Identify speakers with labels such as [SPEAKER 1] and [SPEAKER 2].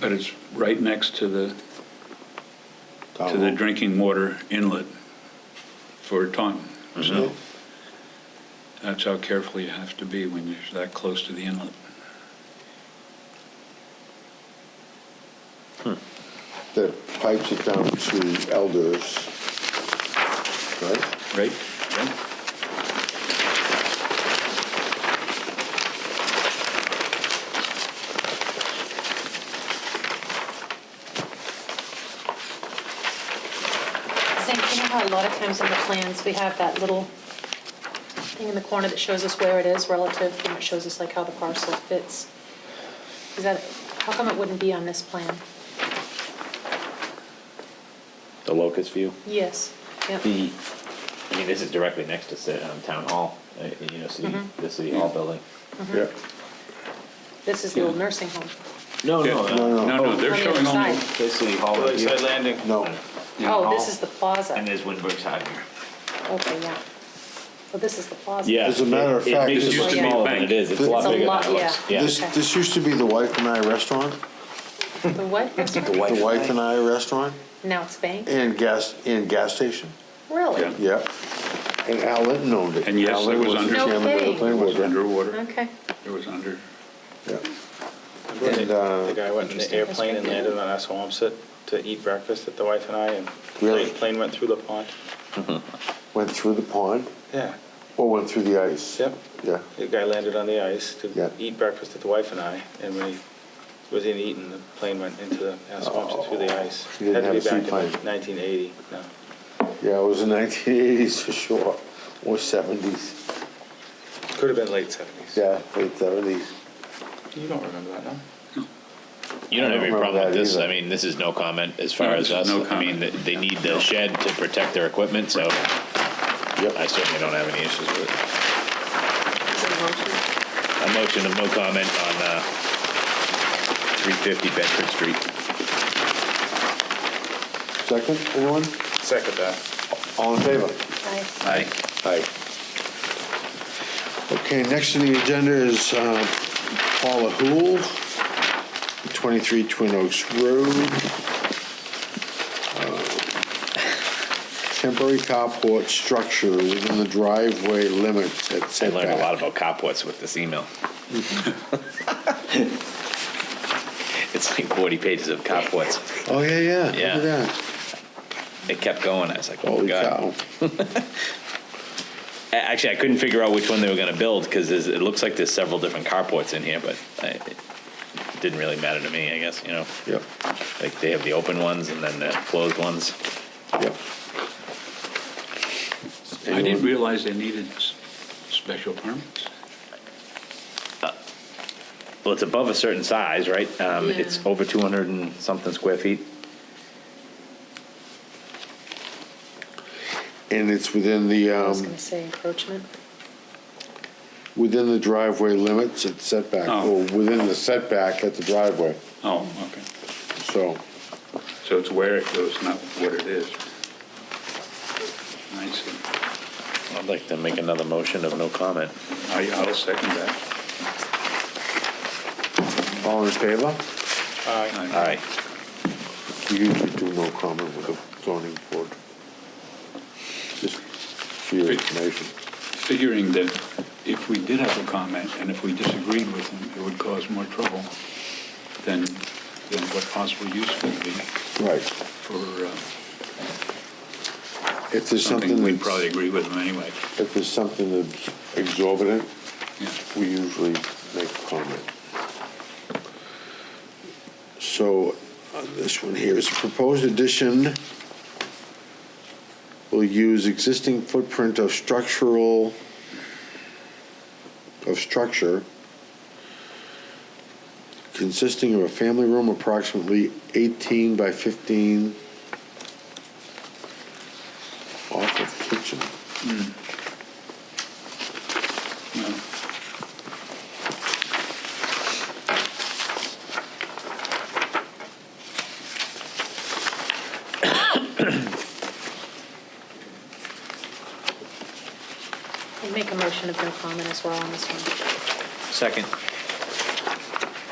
[SPEAKER 1] But it's right next to the, to
[SPEAKER 2] Oh.
[SPEAKER 1] the drinking water inlet for Taunton.
[SPEAKER 2] Mm-hmm.
[SPEAKER 1] So that's how careful you have to be when you're that close to the inlet.
[SPEAKER 3] That pipes it down to Elders, right?
[SPEAKER 1] Right?
[SPEAKER 4] Zink, you know how a lot of times in the plans, we have that little thing in the corner that shows us where it is relative, and it shows us like how the parcel fits? Is that, how come it wouldn't be on this plan?
[SPEAKER 2] The locust view.
[SPEAKER 4] Yes, yep.
[SPEAKER 2] The, I mean, this is directly next to ci- um, town hall, uh, you know, city,
[SPEAKER 4] Mm-hmm.
[SPEAKER 2] the city hall building.
[SPEAKER 3] Yeah.
[SPEAKER 4] This is the old nursing home.
[SPEAKER 2] No, no,
[SPEAKER 1] Yeah.
[SPEAKER 2] no.
[SPEAKER 3] No, uh,
[SPEAKER 1] No, no, they're
[SPEAKER 4] On Oh, the other
[SPEAKER 1] showing only,
[SPEAKER 4] side.
[SPEAKER 2] The city hall. right here.
[SPEAKER 5] Landing.
[SPEAKER 3] No,
[SPEAKER 4] Oh, this is the
[SPEAKER 2] And
[SPEAKER 4] plaza.
[SPEAKER 2] there's Windberg's side here.
[SPEAKER 4] Okay, yeah. Well, this is the plaza.
[SPEAKER 2] Yeah.
[SPEAKER 3] As a matter of
[SPEAKER 2] it-
[SPEAKER 3] fact,
[SPEAKER 2] It makes
[SPEAKER 3] this-
[SPEAKER 2] it look
[SPEAKER 4] Used to be
[SPEAKER 2] smaller than
[SPEAKER 1] bank.
[SPEAKER 2] it is. It's a
[SPEAKER 3] It's
[SPEAKER 2] lot
[SPEAKER 4] a
[SPEAKER 2] bigger
[SPEAKER 4] lot,
[SPEAKER 2] than it looks.
[SPEAKER 4] yeah.
[SPEAKER 2] Yeah.
[SPEAKER 3] this,
[SPEAKER 4] Okay.
[SPEAKER 3] this used to be the Wife and I Restaurant,
[SPEAKER 4] The what? restaurant?
[SPEAKER 3] the Wife and I Restaurant,
[SPEAKER 4] Now it's bank?
[SPEAKER 3] and gas, and gas station,
[SPEAKER 4] Really?
[SPEAKER 1] Yeah.
[SPEAKER 3] yeah. And Al Linton owned it.
[SPEAKER 1] And yes,
[SPEAKER 3] Al
[SPEAKER 1] it
[SPEAKER 3] Linton
[SPEAKER 1] was
[SPEAKER 3] the
[SPEAKER 1] under-
[SPEAKER 4] No
[SPEAKER 3] chairman of the
[SPEAKER 4] kidding.
[SPEAKER 3] planning
[SPEAKER 1] it was
[SPEAKER 3] board, yeah.
[SPEAKER 1] underwater.
[SPEAKER 4] Okay.
[SPEAKER 1] It was under,
[SPEAKER 3] Yeah. And,
[SPEAKER 5] The
[SPEAKER 3] uh,
[SPEAKER 5] guy went in the airplane and landed on Assawamsett to eat breakfast at the wife and I, and
[SPEAKER 3] Really?
[SPEAKER 5] the plane went through the pond.
[SPEAKER 3] went through the pond,
[SPEAKER 5] Yeah,
[SPEAKER 3] or went through the ice.
[SPEAKER 5] yep.
[SPEAKER 3] Yeah,
[SPEAKER 5] The guy landed on the ice to
[SPEAKER 3] Yeah.
[SPEAKER 5] eat breakfast at the wife and I, and when he was in eating, the plane went into the Assawamsett through the ice.
[SPEAKER 3] Oh. He didn't have a
[SPEAKER 5] Had to be back in
[SPEAKER 3] seaplane.
[SPEAKER 5] 1980, no.
[SPEAKER 3] yeah, it was the nineteen eighties for sure, or seventies,
[SPEAKER 5] Could have been late 70s.
[SPEAKER 3] yeah, late seventies.
[SPEAKER 5] You don't remember that, no?
[SPEAKER 2] You don't
[SPEAKER 3] I don't
[SPEAKER 2] have any
[SPEAKER 3] remember
[SPEAKER 2] problem with
[SPEAKER 3] that
[SPEAKER 2] this.
[SPEAKER 3] either.
[SPEAKER 2] I mean, this is no comment as far
[SPEAKER 1] No,
[SPEAKER 2] as
[SPEAKER 1] this
[SPEAKER 2] us.
[SPEAKER 1] is no
[SPEAKER 2] I mean,
[SPEAKER 1] comment.
[SPEAKER 2] they- they need the shed to protect their equipment, so I
[SPEAKER 3] Yep,
[SPEAKER 2] certainly don't have any issues with it.
[SPEAKER 4] Is it a motion?
[SPEAKER 2] A motion of no comment on, uh, three fifty Bedford Street.
[SPEAKER 3] second, anyone?
[SPEAKER 5] Second that.
[SPEAKER 3] All in favor?
[SPEAKER 4] Aye.
[SPEAKER 2] Aye.
[SPEAKER 3] Aye. Okay, next on the agenda is uh, Paula Hool, 23 Twin Oaks Road. Uh, Temporary carport structure within the driveway limits at
[SPEAKER 2] I learned a lot
[SPEAKER 3] setback.
[SPEAKER 2] about Copwitz with this email. It's like forty pages of Copwitz.
[SPEAKER 3] Oh, yeah, yeah, look
[SPEAKER 2] Yeah.
[SPEAKER 3] at that.
[SPEAKER 2] It kept going. I was like, oh,
[SPEAKER 3] Holy
[SPEAKER 2] God.
[SPEAKER 3] cow.
[SPEAKER 2] A- Actually, I couldn't figure out which one they were gonna build, because it looks like there's several different carports in here, but I, it didn't really matter to me, I guess, you know?
[SPEAKER 3] Yep,
[SPEAKER 2] Like, they have the open ones and then the closed ones.
[SPEAKER 3] yep.
[SPEAKER 1] I didn't
[SPEAKER 3] Anyone?
[SPEAKER 1] realize they needed s- special permits.
[SPEAKER 2] Well, it's above a certain size, right? Um, it's
[SPEAKER 4] Yeah.
[SPEAKER 2] over two hundred and something square feet.
[SPEAKER 3] And it's within the,
[SPEAKER 4] I was
[SPEAKER 3] um,
[SPEAKER 4] gonna say encroachment.
[SPEAKER 3] within the driveway limits at setback,
[SPEAKER 1] Oh.
[SPEAKER 3] or within the setback at the driveway,
[SPEAKER 1] Oh, okay.
[SPEAKER 3] so.
[SPEAKER 1] So it's where it goes, not what it is. I see.
[SPEAKER 2] I'd like to make another motion of no comment.
[SPEAKER 1] I- I'll second that.
[SPEAKER 3] All in favor?
[SPEAKER 5] Aye.
[SPEAKER 2] All right.
[SPEAKER 3] We usually do no comment with the zoning board. Just for your information.
[SPEAKER 1] Figuring that if we did have a comment and if we disagreed with them, it would cause more trouble than, than what possible use would be
[SPEAKER 3] Right.
[SPEAKER 1] for uh,
[SPEAKER 3] If there's
[SPEAKER 1] something
[SPEAKER 3] something
[SPEAKER 1] we'd probably
[SPEAKER 3] that's,
[SPEAKER 1] agree with them anyway.
[SPEAKER 3] if there's something that's exorbitant,
[SPEAKER 1] Yeah.
[SPEAKER 3] we usually make a comment. So, on this one here, is proposed addition will use existing footprint of structural, of structure consisting of a family room approximately 18 by 15 off of kitchen.
[SPEAKER 1] No.
[SPEAKER 4] I'd make a motion of no comment as well on this one.
[SPEAKER 2] Second.